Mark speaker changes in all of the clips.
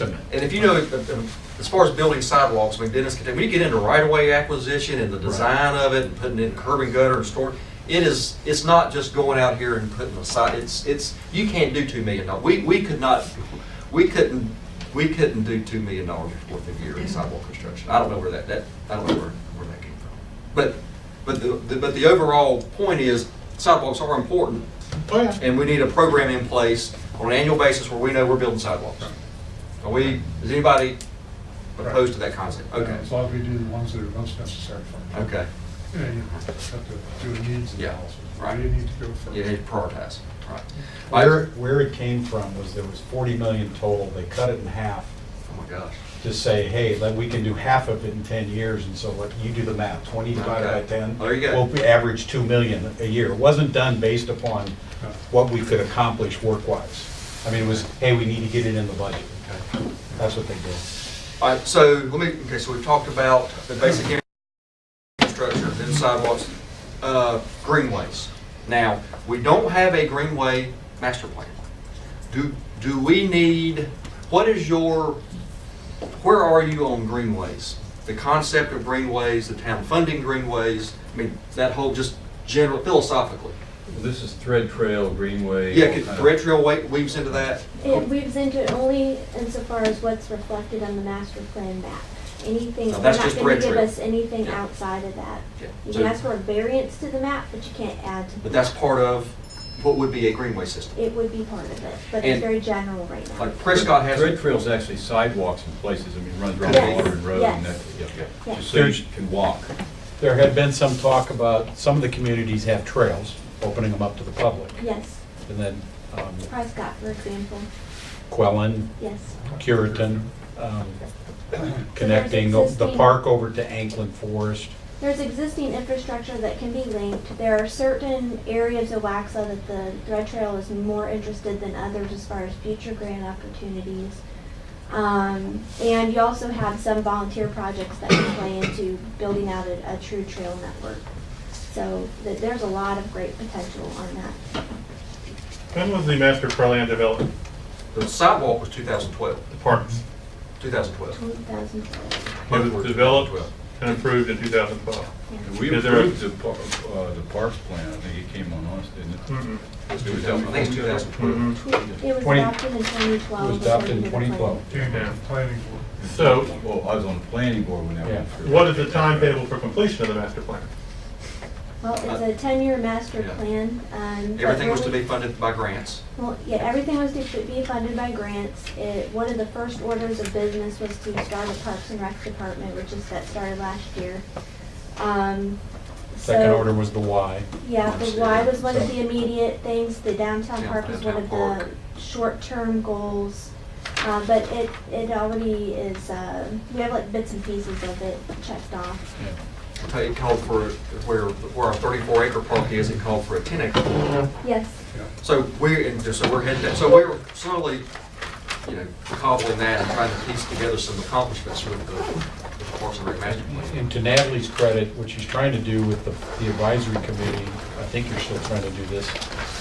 Speaker 1: And if you know, if- if- as far as building sidewalks, I mean, Dennis, can- when you get into right-of-way acquisition and the design of it, and putting in curb and gutter and storm, it is, it's not just going out here and putting a side, it's, it's, you can't do two million dollars. We, we could not, we couldn't, we couldn't do two million dollars worth of year in sidewalk construction. I don't know where that, that, I don't know where, where that came from. But, but the- the, but the overall point is sidewalks are important,
Speaker 2: Oh, yeah.
Speaker 1: and we need a program in place on an annual basis where we know we're building sidewalks. Are we, is anybody opposed to that concept? Okay,
Speaker 2: As long as we do the ones that are most necessary first.
Speaker 1: okay,
Speaker 2: You know, you have to do a needs
Speaker 1: Yeah,
Speaker 2: analysis. Where
Speaker 1: right.
Speaker 2: do you need to go first?
Speaker 1: you need to prioritize, right.
Speaker 3: Where, where it came from was there was 40 million total, they cut it in half
Speaker 1: Oh my gosh.
Speaker 3: to say, hey, let- we can do half of it in 10 years, and so let, you do the math, 20 divided by
Speaker 1: Okay.
Speaker 3: 10.
Speaker 1: There you go.
Speaker 3: We'll be- average 2 million a year. It wasn't done based upon
Speaker 2: No.
Speaker 3: what we could accomplish work-wise. I mean, it was, hey, we need to get it in the budget.
Speaker 1: Okay.
Speaker 3: That's what they did.
Speaker 1: All right, so let me, okay, so we've talked about the basic infrastructure, then sidewalks, uh, greenways. Now, we don't have a greenway master plan. Do, do we need, what is your, where are you on greenways? The concept of greenways, the town funding greenways, I mean, that whole just general philosophically.
Speaker 4: This is Thread Trail, Greenway. all
Speaker 1: Yeah, could
Speaker 4: kind of-
Speaker 1: Red Trail wa- weaves into that?
Speaker 5: It weaves into it only insofar as what's reflected on the master plan map. Anything,
Speaker 1: No,
Speaker 5: they're
Speaker 1: that's
Speaker 5: not
Speaker 1: just
Speaker 5: gonna
Speaker 1: red
Speaker 5: give
Speaker 1: trail.
Speaker 5: us anything
Speaker 1: Yeah.
Speaker 5: outside of that.
Speaker 1: Yeah.
Speaker 5: You
Speaker 1: So-
Speaker 5: can ask for a variance to the map, but you can't add to the.
Speaker 1: But that's
Speaker 5: map.
Speaker 1: part of what would be a greenway system.
Speaker 5: It would be part of it, but
Speaker 1: And-
Speaker 5: it's very general right now.
Speaker 1: Like Prescott has.
Speaker 4: Thread Trail's actually sidewalks in places, I mean, runs around
Speaker 5: Yes,
Speaker 4: Waterton Road and that,
Speaker 5: yes.
Speaker 4: yeah, yeah,
Speaker 5: Yes.
Speaker 4: just so you can walk.
Speaker 3: There had been some talk about, some of the communities have trails, opening them up to the public.
Speaker 5: Yes,
Speaker 3: And then um,
Speaker 5: Prescott, for example,
Speaker 3: Quellen,
Speaker 5: yes.
Speaker 3: Curitan, um, connecting the- the
Speaker 5: existing-
Speaker 3: park over to Anklin Forest.
Speaker 5: There's existing infrastructure that can be linked. There are certain areas of Waxaw that the Thread Trail is more interested than others as far as future grant opportunities. Um, and you also have some volunteer projects that can play into building out a, a true trail network. So th- there's a lot of great potential on that.
Speaker 6: When was the master plan developed?
Speaker 1: The sidewalk was 2012,
Speaker 6: The parks.
Speaker 1: 2012.
Speaker 5: 2012.
Speaker 6: It was developed and approved in 2012.
Speaker 5: Yeah.
Speaker 4: And We
Speaker 6: Is there a-
Speaker 4: approved the, par- uh, the parks plan, I think it came on us, didn't it?
Speaker 3: Mm-hmm.
Speaker 6: Mm-mm.
Speaker 1: I
Speaker 4: It was Mm-hmm.
Speaker 1: think it's 2012.
Speaker 6: Mhm.
Speaker 5: It was
Speaker 3: Twenty-
Speaker 5: adopted in 2012.
Speaker 3: It was adopted in
Speaker 5: according to the plan.
Speaker 3: 2012.
Speaker 6: Yeah.
Speaker 2: Came with the planning board.
Speaker 6: So
Speaker 4: Well, I was on the planning board when that went through.
Speaker 6: what is the timetable for completion of the master plan?
Speaker 5: Well, it's a 10-year master
Speaker 1: Yeah.
Speaker 5: plan. um, but
Speaker 1: Everything was to
Speaker 5: really-
Speaker 1: be funded by grants.
Speaker 5: Well, yeah, everything was to be funded by grants. It, one of the first orders of business was to start a Parks and Rec Department, which is, that started last year. Um,
Speaker 3: Second
Speaker 5: so-
Speaker 3: order was the Y.
Speaker 5: Yeah, the Y was one of
Speaker 3: So-
Speaker 5: the immediate things, the downtown
Speaker 1: Yeah,
Speaker 5: park was one of
Speaker 1: downtown park.
Speaker 5: the short-term goals. Uh, but it, it already is, uh, we have like bits and pieces of it checked off.
Speaker 3: Yeah.
Speaker 1: It called for, where, where our 34 acre park is, it called for a 10 acre. park.
Speaker 5: Yes,
Speaker 1: So we're, and so we're heading, that- so we're slowly, you know, cobbling that and trying to piece together some accomplishments with the with the Parks and Rec Master Plan.
Speaker 3: And to Natalie's credit, what she's trying to do with the the advisory committee, I think you're still trying to do this,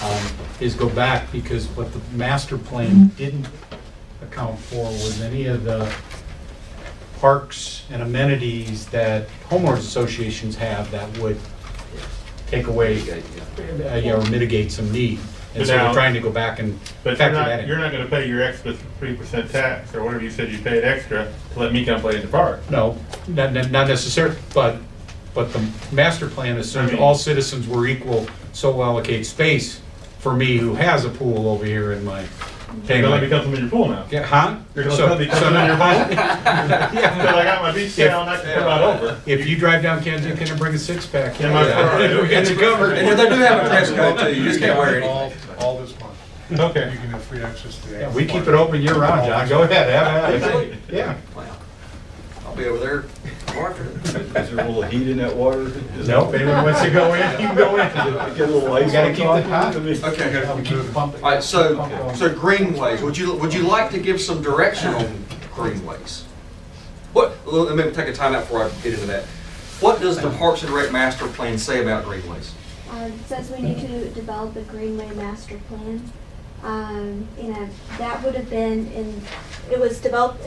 Speaker 3: um, is go back, because what the master plan didn't account for was any of the parks and amenities that homeowners associations have that would take away,
Speaker 1: Yeah,
Speaker 3: uh,
Speaker 1: yeah.
Speaker 3: you know, mitigate some need. And so we're trying to go back and
Speaker 6: But
Speaker 3: factor
Speaker 6: you're
Speaker 3: that
Speaker 6: not,
Speaker 3: in.
Speaker 6: you're not going to pay your extra 3% tax or whatever you said you paid extra to let me come play in the park.
Speaker 3: No, not, not not necessarily, but, but the master plan assumed
Speaker 6: Right.
Speaker 3: all citizens were equal, so we'll allocate space for me who has a pool over here in my.
Speaker 6: You're
Speaker 3: pay
Speaker 6: going to let
Speaker 3: my-
Speaker 6: me come swim in your pool now.
Speaker 3: Yeah, Huh?
Speaker 6: You're going to
Speaker 3: So-
Speaker 6: let me come
Speaker 3: so
Speaker 6: swim in your
Speaker 3: now-
Speaker 6: pool? Because
Speaker 3: yeah.
Speaker 6: I got my beach towel and I can come out over.
Speaker 3: If you drive down Kensington and bring a six-pack.
Speaker 6: In my car.
Speaker 3: It's a cover.
Speaker 1: And they do have a dress code too, you just can't wear
Speaker 2: All-
Speaker 1: anything.
Speaker 2: All this month. You
Speaker 6: Okay.
Speaker 2: can have free access to
Speaker 3: Yeah,
Speaker 2: that.
Speaker 3: We keep it open year-round, John, go ahead, have at it. Yeah.
Speaker 1: Wow. I'll be over there tomorrow afternoon.
Speaker 4: Is there a little heat in that water? Is
Speaker 3: Nope,
Speaker 4: it-
Speaker 3: anyone wants to go in, you can go in.
Speaker 4: Get a little
Speaker 3: We
Speaker 4: ice
Speaker 3: gotta
Speaker 4: on
Speaker 3: keep the
Speaker 4: top?
Speaker 3: hot.
Speaker 4: I mean-
Speaker 1: Okay.
Speaker 2: We keep
Speaker 3: pumping.
Speaker 1: All right, so, so greenways, would you, would you like to give some direction on greenways? What, let me take a timeout before I get into that. What does the Parks and Rec Master Plan say about greenways?
Speaker 5: uh, it says we need to develop a Greenway master plan. Um, you know, that would have been in, it was developed